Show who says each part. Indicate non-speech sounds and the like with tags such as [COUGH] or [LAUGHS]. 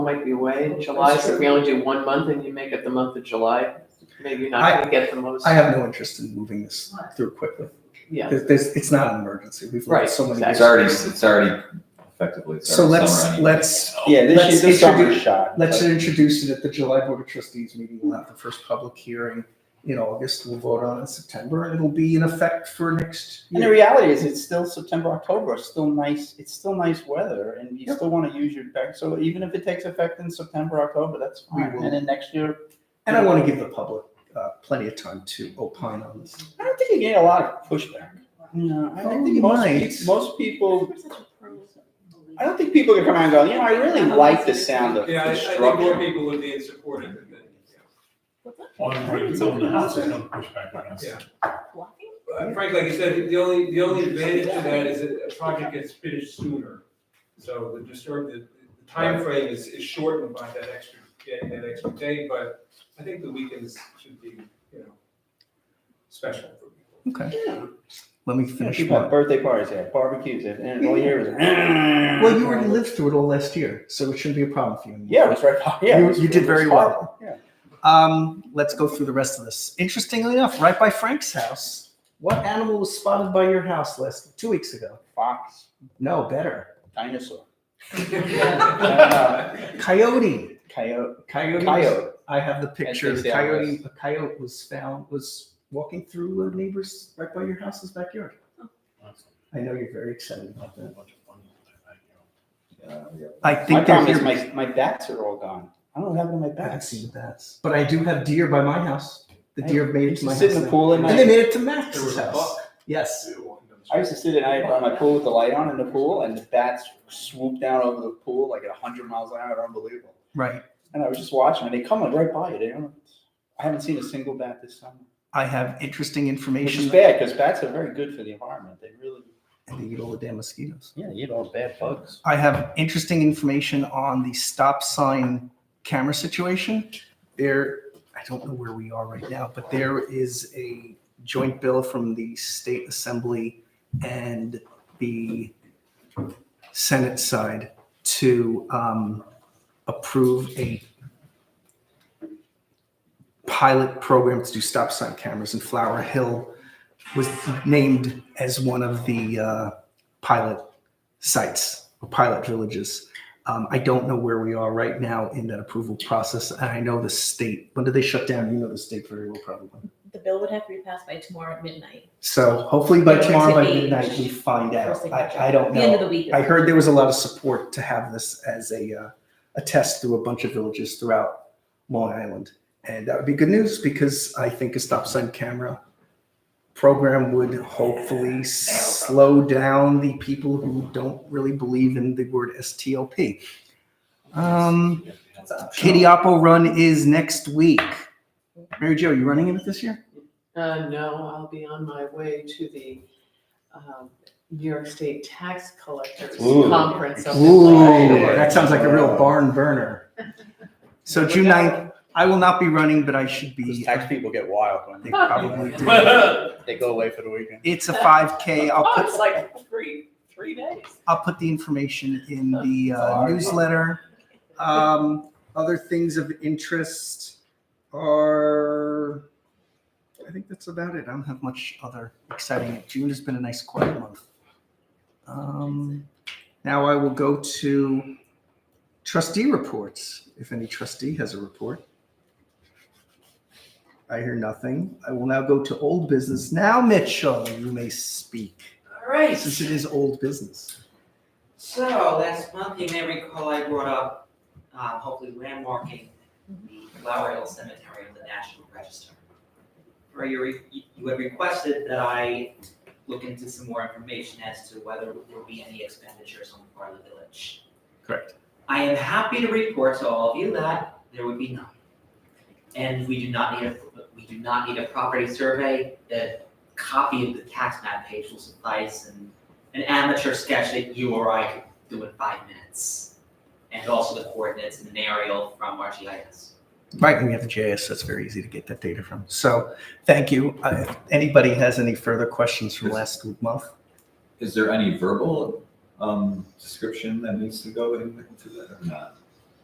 Speaker 1: might be away in July,
Speaker 2: That's
Speaker 1: so if we only do one month and you make it the month of July, maybe you're not
Speaker 3: I-
Speaker 1: gonna get the most.
Speaker 3: I have no interest in moving this through quickly.
Speaker 1: Yeah.
Speaker 3: There's- there's- it's not an emergency. We've
Speaker 1: Right,
Speaker 3: learned so many.
Speaker 1: exactly.
Speaker 4: It's already, it's already effectively, it's
Speaker 3: So
Speaker 4: already
Speaker 3: let's,
Speaker 4: summer anyway.
Speaker 3: let's,
Speaker 2: Yeah, this
Speaker 3: Let's
Speaker 2: year, this summer
Speaker 3: introduce-
Speaker 2: shot.
Speaker 3: let's introduce it at the July Board of Trustees meeting. We'll have the first public hearing in August. We'll vote on it in September and it'll be in effect for next
Speaker 2: And the
Speaker 3: year.
Speaker 2: reality is, it's still September, October, it's still nice, it's still nice weather, and you
Speaker 3: Yep.
Speaker 2: still wanna use your deck, so even if it takes effect in September, October, that's
Speaker 3: We
Speaker 2: fine,
Speaker 3: will.
Speaker 2: and then next year.
Speaker 3: And I want to give the public uh, plenty of time to opine on this.
Speaker 2: I don't think you get a lot of pushback, you know, I I
Speaker 3: Oh,
Speaker 2: think most,
Speaker 3: nice.
Speaker 2: peop- most people, I don't think people can come out and go, you know, I really like the sound of
Speaker 5: Yeah, I I think more
Speaker 2: construction.
Speaker 5: people would be in support of it than.
Speaker 6: Well, I'm pretty good on the house, I don't push back on us.
Speaker 5: Yeah. But Frank, like you said, the only, the only advantage to that is that a project gets finished sooner. So the disturb, the the timeframe is, is shortened by that extra, day- that extra day, but I think the weekends should be, you know, special for
Speaker 2: [LAUGHS]
Speaker 5: people.
Speaker 3: Okay. Let me
Speaker 2: Yeah,
Speaker 3: finish
Speaker 2: People
Speaker 3: mine.
Speaker 2: have birthday parties, they have barbecues, they have- and all year is.
Speaker 3: Well, you already lived through it all last year, so it shouldn't be a problem for you.
Speaker 2: Yeah, it was right, yeah. it
Speaker 3: You-
Speaker 2: was-
Speaker 3: you did
Speaker 2: it was
Speaker 3: very
Speaker 2: fine.
Speaker 3: well.
Speaker 2: Yeah.
Speaker 3: Um, let's go through the rest of this. Interestingly enough, right by Frank's house, what animal was spotted by your house last two weeks ago?
Speaker 2: Fox,
Speaker 3: No, better.
Speaker 2: dinosaur,
Speaker 5: [LAUGHS]
Speaker 3: Coyote.
Speaker 2: coyote,
Speaker 3: Coyote.
Speaker 2: coyote.
Speaker 3: I have the
Speaker 2: As
Speaker 3: picture.
Speaker 2: they
Speaker 3: The
Speaker 2: say on
Speaker 3: coyote. A coyote was found was walking through a neighbor's right by your house's backyard. I know you're very excited about that.
Speaker 4: Yeah, yeah.
Speaker 3: I
Speaker 2: My
Speaker 3: think they're here.
Speaker 2: problem is my, my bats are all gone. I don't have any of my
Speaker 3: I haven't
Speaker 2: bats.
Speaker 3: seen the bats, but I do have deer by my house. The
Speaker 2: I-
Speaker 3: deer have made
Speaker 2: I
Speaker 3: it
Speaker 2: used
Speaker 3: to my
Speaker 2: to
Speaker 3: house,
Speaker 2: sit in the
Speaker 3: now. [LAUGHS]
Speaker 2: pool at
Speaker 3: and they
Speaker 2: night.
Speaker 3: made it to
Speaker 5: There was
Speaker 3: Max's
Speaker 5: a
Speaker 3: house.
Speaker 5: buck.
Speaker 3: Yes.
Speaker 2: I used to sit at night by my pool with the light on in the pool, and the bats swooped down over the pool like at 100 miles an hour. Unbelievable.
Speaker 3: Right.
Speaker 2: And I was just watching, and they come like right by you. They don't. I haven't seen a single bat this summer,
Speaker 3: I have interesting
Speaker 2: which
Speaker 3: information.
Speaker 2: is bad because bats are very good for the environment. They really,
Speaker 3: And they eat all the damn mosquitoes.
Speaker 2: yeah, you eat all the bad bugs.
Speaker 3: I have interesting information on the stop sign camera situation. There, I don't know where we are right now, but there is a joint bill from the state assembly and the senate side to um, approve a pilot program to do stop sign cameras in Flower Hill was named as one of the uh, pilot sites or pilot villages. Um, I don't know where we are right now in that approval process. And I know the state, when did they shut down? You know the state very well, probably.
Speaker 7: The bill would have to be passed by tomorrow at midnight,
Speaker 3: So hopefully by
Speaker 7: Yeah,
Speaker 3: tomorrow, by
Speaker 7: it's eight.
Speaker 3: midnight, we find
Speaker 7: First
Speaker 3: out.
Speaker 7: thing.
Speaker 3: I, I don't
Speaker 7: the end of
Speaker 3: know.
Speaker 7: the week.
Speaker 3: I heard there was a lot of support to have this as a, uh, a test through a bunch of villages throughout Long Island. And that would be good news because I think a stop sign camera program would hopefully slow down the people who don't really believe in the word STLP. Um, Kiddiapo Run is next week. Mary Jo, you running in it this year?
Speaker 1: Uh, no, I'll be on my way to the, um, New York State Tax Collectors
Speaker 2: Ooh.
Speaker 1: Conference. up in
Speaker 3: Ooh,
Speaker 1: Lancaster.
Speaker 3: that sounds like a real barn burner. So June 9th, I will not be running, but I should
Speaker 2: Those
Speaker 3: be.
Speaker 2: tax people get wild when
Speaker 3: uh, They
Speaker 2: they,
Speaker 3: probably
Speaker 2: [LAUGHS]
Speaker 3: do.
Speaker 2: they go away for the weekend.
Speaker 3: It's a 5K. I'll
Speaker 1: [LAUGHS] Oh,
Speaker 3: put
Speaker 1: it's like three, three days.
Speaker 3: I'll put the information in the uh, newsletter. Um, other things of interest are, I think that's about it. I don't have much other exciting. June has been a nice quiet month. Um, now I will go to trustee reports. If any trustee has a report, I hear nothing. I will now go to old business. Now, Mitchell, you may speak
Speaker 8: All right,
Speaker 3: since it is old business.
Speaker 8: so last month, you may recall I brought up, uh, hopefully landmarking the Flower Hill Cemetery on the National Register. Or you, re- you had requested that I look into some more information as to whether there will be any expenditures on the part of the village.
Speaker 3: Correct.
Speaker 8: I am happy to report to all of you that there would be none. And we do not need a, we do not need a property survey, a copy of the tax map page will suffice and an amateur sketch that you or I could do in five minutes. And also the coordinates and an aerial from RGIS.
Speaker 3: Right, and we have the JS, so it's very easy to get that data from. So, thank you. Uh, If anybody has any further questions from last month?
Speaker 4: Is there any verbal, um, description that needs to go in- into that or not?